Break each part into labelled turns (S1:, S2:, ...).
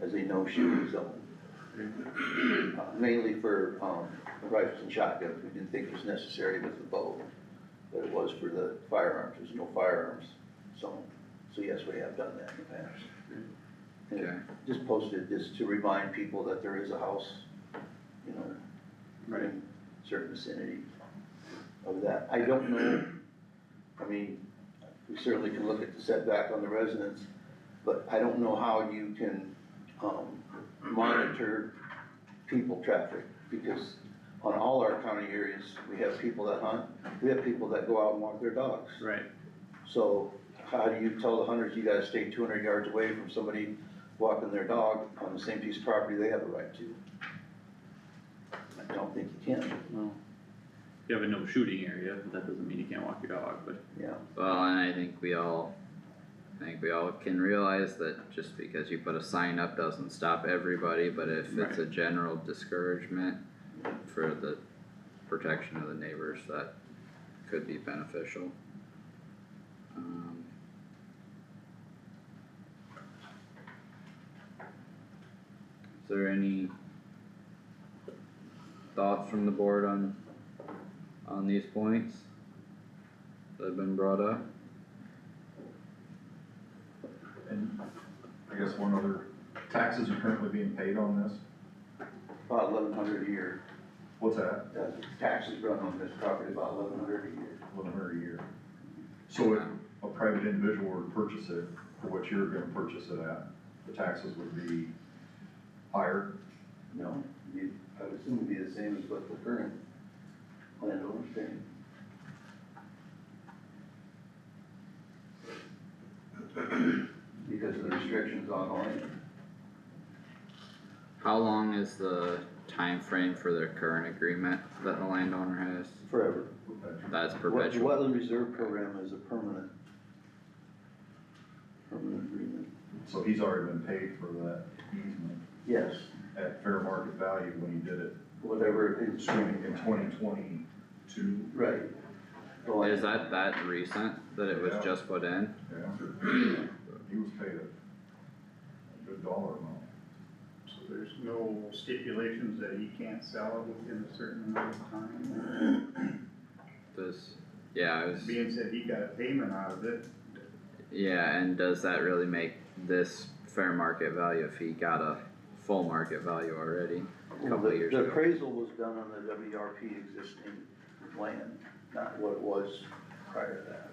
S1: as a no-shooting zone. Uh, um, Mainly for, um, rifles and shotguns, we didn't think it was necessary with the bow, but it was for the firearms, there's no firearms zone. So yes, we have done that in the past.
S2: Okay.
S1: And just posted, just to remind people that there is a house, you know,
S2: Right.
S1: in certain vicinity of that. I don't know, I mean, we certainly can look at the setback on the residence, but I don't know how you can, um, monitor people traffic, because on all our county areas, we have people that hunt, we have people that go out and walk their dogs.
S2: Right.
S1: So how do you tell the hunters, you gotta stay two hundred yards away from somebody walking their dog on the same piece of property they have a right to? I don't think you can,
S3: Well, you have a no shooting area, but that doesn't mean you can't walk your dog, but
S1: yeah.
S4: Well, and I think we all, I think we all can realize that just because you put a sign up doesn't stop everybody, but if it's a general discouragement for the protection of the neighbors, that could be beneficial. Um, Is there any thoughts from the board on, on these points that have been brought up?
S5: And I guess one other, taxes are currently being paid on this,
S1: About eleven hundred a year,
S5: what's that,
S1: Uh, taxes run on this property about eleven hundred a year.
S5: eleven hundred a year? So if a private individual were to purchase it, for what you're gonna purchase it at, the taxes would be higher,
S1: No, you, I would assume it'd be the same as what the current landowner's paying. Because of the restrictions on land,
S4: How long is the time frame for their current agreement that the landowner has?
S1: forever.
S5: okay?
S4: That's
S1: Wet-
S4: perpetual.
S1: Wetland Reserve Program is a permanent, permanent agreement.
S5: So he's already been paid for that easement
S1: Yes,
S5: at fair market value when he did it
S1: whatever it
S5: in
S1: is,
S5: twenty twenty-two,
S1: right. Well,
S4: Is that that recent that it was
S5: Yeah.
S4: just put in?
S5: yeah? He was paid a a good dollar amount.
S2: So there's no stipulations that he can't sell it within a certain amount of time?
S4: Does, yeah, I was,
S2: Being said he got a payment out of it,
S4: yeah, and does that really make this fair market value if he got a full market value already? a couple
S1: the-
S4: years
S1: The
S4: ago.
S1: appraisal was done on the WRP existing land, not what it was prior to that.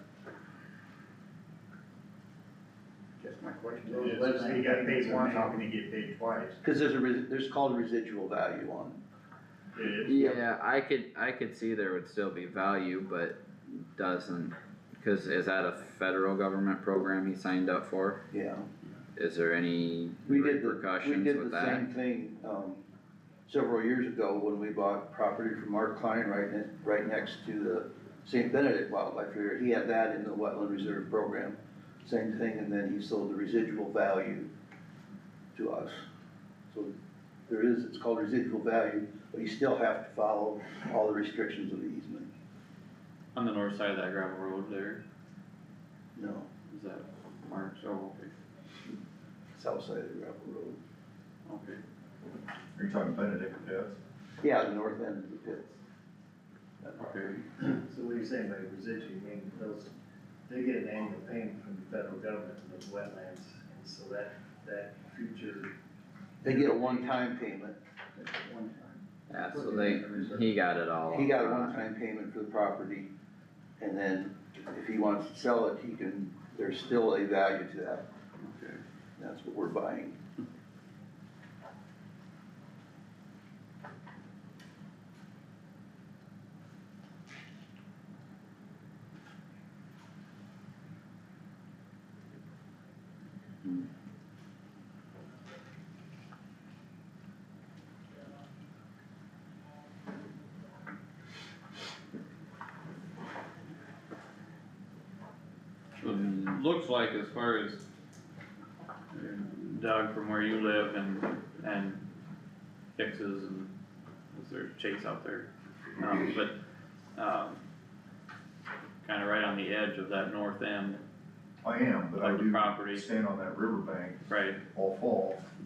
S2: guess my question
S6: Well,
S2: is,
S6: let's
S2: if he got
S6: say-
S2: paid once, how can he get paid twice?
S1: Cause there's a, res- there's called residual value on,
S2: It is,
S4: Yeah, I could, I could see there would still be value, but doesn't, cause is that a federal government program he signed up for?
S1: yeah.
S4: Is there any
S1: We did the, we
S4: repercussions
S1: did the
S4: with that?
S1: same thing, um, several years ago when we bought property from Mark Klein right ne- right next to the St. Benedict Wildlife Area. He had that in the wetland reserve program, same thing, and then he sold the residual value to us. So there is, it's called residual value, but you still have to follow all the restrictions of the easement,
S3: on the north side of that gravel road there,
S1: no,
S3: is that marked, oh, okay,
S1: south side of the gravel road.
S3: okay.
S5: Are you talking Benedict Pitts?
S1: Yeah, the north end of the pits. That part.
S3: Okay,
S6: So what you're saying by residual, I mean, those, they get an annual payment from the federal government for those wetlands, and so that, that future.
S1: They get a one-time payment,
S6: One time.
S4: Yeah, so they, he got it all.
S1: He got a
S4: upfront.
S1: one-time payment for the property, and then if he wants to sell it, he can, there's still a value to that,
S3: okay.
S1: that's what we're buying.
S3: So it looks like as far as uh, Doug from where you live and, and Hicks's and, is there Chase out there? Um, but, um, kinda right on the edge of that north end
S5: I am, but I
S3: of the
S5: do
S3: property,
S5: stand on that riverbank
S3: right?
S5: all fall,